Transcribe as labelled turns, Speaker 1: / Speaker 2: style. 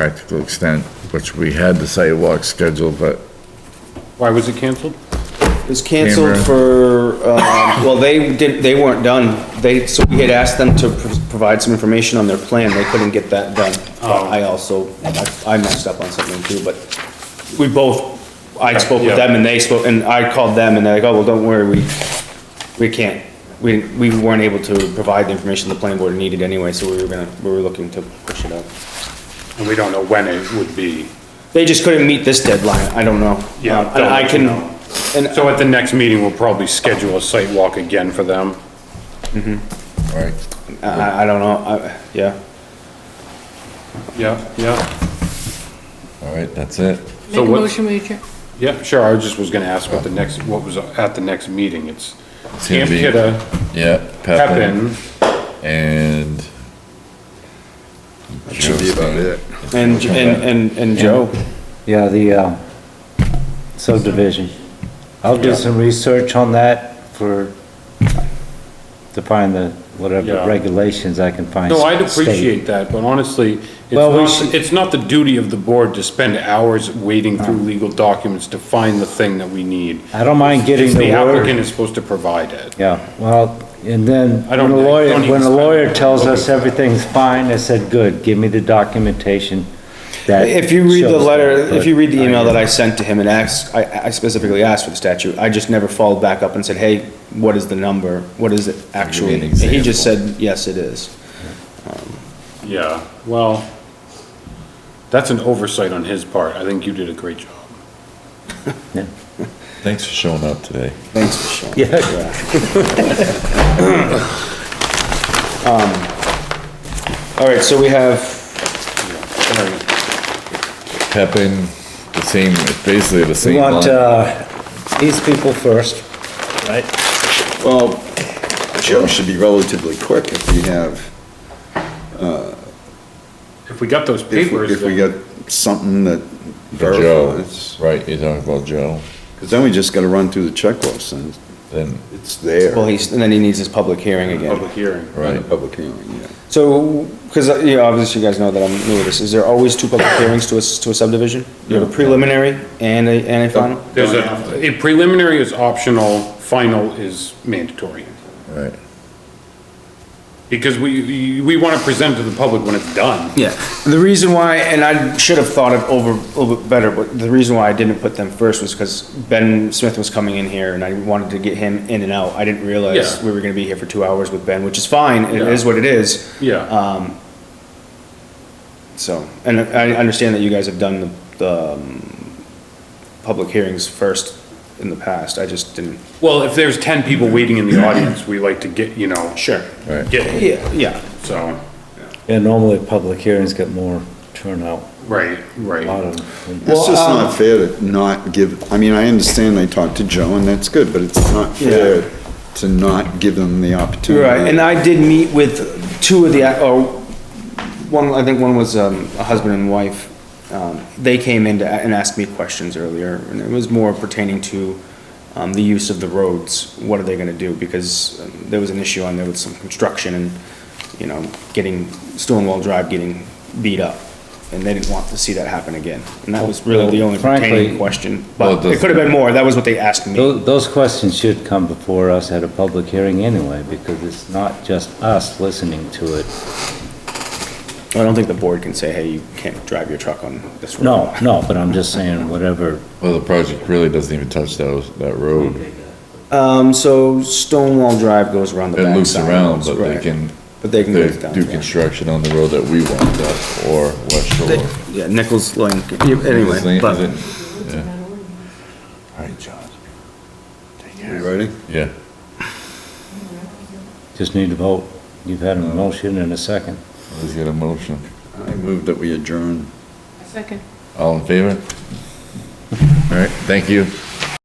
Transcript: Speaker 1: practical extent, which we had the sidewalk scheduled, but
Speaker 2: Why was it canceled?
Speaker 3: It was canceled
Speaker 1: Camera.
Speaker 3: for, um, well, they didn't, they weren't done. They, so we had asked them to pr- provide some information on their plan. They couldn't get that done.
Speaker 2: Oh.
Speaker 3: I also, I- I messed up on something too, but we both, I spoke with
Speaker 2: Yeah.
Speaker 3: them and they spoke, and I called them and they're like, oh, well, don't worry, we, we can't. We, we weren't able to provide the information the planning board needed anyway, so we were gonna, we were looking to push it out.
Speaker 2: And we don't know when it would be.
Speaker 3: They just couldn't meet this deadline. I don't know.
Speaker 2: Yeah,
Speaker 3: Uh, And
Speaker 2: don't
Speaker 3: I
Speaker 2: let
Speaker 3: can,
Speaker 2: you know.
Speaker 3: and
Speaker 2: So at the next meeting, we'll probably schedule a site walk again for them.
Speaker 1: all right.
Speaker 3: I- I, I don't know. I, yeah.
Speaker 2: Yeah, yeah.
Speaker 1: All right, that's it.
Speaker 4: Make
Speaker 2: So
Speaker 4: a
Speaker 2: what,
Speaker 4: motion, we adjourn.
Speaker 2: yeah, sure, I just was gonna ask what the next, what was at the next meeting, it's
Speaker 1: It's gonna
Speaker 2: Camp
Speaker 1: be-
Speaker 2: Kidda,
Speaker 1: Yeah, Pepin
Speaker 2: Pepin,
Speaker 1: and. should be about it.
Speaker 3: And, and, and, and Joe,
Speaker 5: Yeah, the uh, subdivision. I'll do some research on that for, to find the,
Speaker 2: Yeah.
Speaker 5: whatever regulations I can find.
Speaker 2: No, I'd
Speaker 5: state.
Speaker 2: appreciate that, but honestly, it's
Speaker 5: Well, we
Speaker 2: not,
Speaker 5: should-
Speaker 2: it's not the duty of the board to spend hours wading through legal documents to find the thing that we need.
Speaker 5: I don't mind getting
Speaker 2: It's the
Speaker 5: the
Speaker 2: applicant
Speaker 5: word.
Speaker 2: is supposed to provide it.
Speaker 5: Yeah, well, and then
Speaker 2: I don't-
Speaker 5: when a
Speaker 2: I
Speaker 5: lawyer,
Speaker 2: don't even
Speaker 5: when a
Speaker 2: spend-
Speaker 5: lawyer tells us everything's fine, I said, good, give me the documentation that.
Speaker 3: if you read the
Speaker 5: shows that,"
Speaker 3: letter, if
Speaker 5: but
Speaker 3: you read the email that I sent to him and asked, I, I specifically asked for the statute, I just never followed back up and said, hey, what is the number? What is it actually?
Speaker 1: an
Speaker 3: And he just
Speaker 1: example.
Speaker 3: said, yes, it is.
Speaker 2: Yeah, well, that's an oversight on his part. I think you did a great job.
Speaker 1: Thanks for showing up today.
Speaker 3: Thanks for showing.
Speaker 5: Yeah,
Speaker 3: All right, so we have,
Speaker 1: Pepin, the same, it's basically the
Speaker 5: we
Speaker 1: same. line.
Speaker 5: want, uh, these people first, right?
Speaker 6: Well, Joe should be relatively quick if we have,
Speaker 2: If we got those
Speaker 6: if we-
Speaker 2: papers,
Speaker 6: if we
Speaker 2: then-
Speaker 6: got something that
Speaker 1: For Joe,
Speaker 6: verifies.
Speaker 1: right, you're talking about Joe,
Speaker 6: Because then we just gotta run through the checklist and
Speaker 1: then,
Speaker 6: it's there.
Speaker 3: well, he's, and then he needs his public hearing again.
Speaker 2: public hearing.
Speaker 6: On the
Speaker 1: right,
Speaker 6: Public hearing, yeah.
Speaker 3: So, because, you know, obviously you guys know that I'm new to this, is there always two public hearings to a, s- to a subdivision? You have a preliminary and a, and a final?
Speaker 2: There's a, a preliminary is optional, final is mandatory.
Speaker 1: right.
Speaker 2: Because we- we, we want to present to the public when it's done.
Speaker 3: Yeah, the reason why, and I should have thought of over, a little bit better, but the reason why I didn't put them first was because Ben Smith was coming in here and I wanted to get him in and out. I didn't realize
Speaker 2: Yeah.
Speaker 3: we were gonna be here for two hours with Ben, which is fine, it
Speaker 2: Yeah.
Speaker 3: is what it is.
Speaker 2: Yeah.
Speaker 3: Um, so, and I understand that you guys have done the, the, um, public hearings first in the past, I just didn't.
Speaker 2: Well, if there's ten people waiting in the audience, we like to get, you know,
Speaker 3: Sure.
Speaker 1: Right.
Speaker 2: get,
Speaker 3: Yeah, yeah,
Speaker 2: so,
Speaker 5: Yeah, normally public hearings get more turnout,
Speaker 2: right,
Speaker 5: a lot
Speaker 2: right.
Speaker 5: of them.
Speaker 6: It's just
Speaker 3: um,
Speaker 6: not fair to not give, I mean, I understand they talked to Joe and that's good, but it's not fair to not give them the opportunity.
Speaker 3: Right, and I did meet with two of the, or one, I think one was um, a husband and wife. Um, They came in to a- and asked me questions earlier, and it was more pertaining to um, the use of the roads. What are they gonna do? Because um, there was an issue on there with some construction and, you know, getting Stonewall Drive getting beat up. And they didn't want to see that happen again. And that was really the only pertaining
Speaker 5: Frankly-
Speaker 3: question.
Speaker 1: Well,
Speaker 3: But
Speaker 1: it
Speaker 3: it could have been more, that was what they asked me.
Speaker 5: Tho- Those questions should come before us at a public hearing anyway, because it's not just us listening to it.
Speaker 3: I don't think the board can say, hey, you can't drive your truck on this road.
Speaker 5: No, no, but I'm just saying, whatever,
Speaker 1: Well, the project really doesn't even touch those, that road.
Speaker 3: Um, so Stonewall Drive goes around the
Speaker 1: It
Speaker 3: back
Speaker 1: loops
Speaker 3: side,
Speaker 1: around, but they
Speaker 3: right.
Speaker 1: can,
Speaker 3: But they can
Speaker 1: they
Speaker 3: go down.
Speaker 1: do
Speaker 3: yeah.
Speaker 1: construction on the road that we want, that, or West Shore.
Speaker 3: Yeah, Nichols Lane, yeah,
Speaker 1: Is it-
Speaker 3: anyway,
Speaker 1: is
Speaker 3: but,
Speaker 1: it- yeah. All right, John.
Speaker 6: You ready?
Speaker 1: Yeah,
Speaker 5: just need to vote. You've had a motion and a second.
Speaker 1: let's get a motion.
Speaker 6: I move that we adjourn.
Speaker 4: Second.
Speaker 1: All in favor? All right, thank you.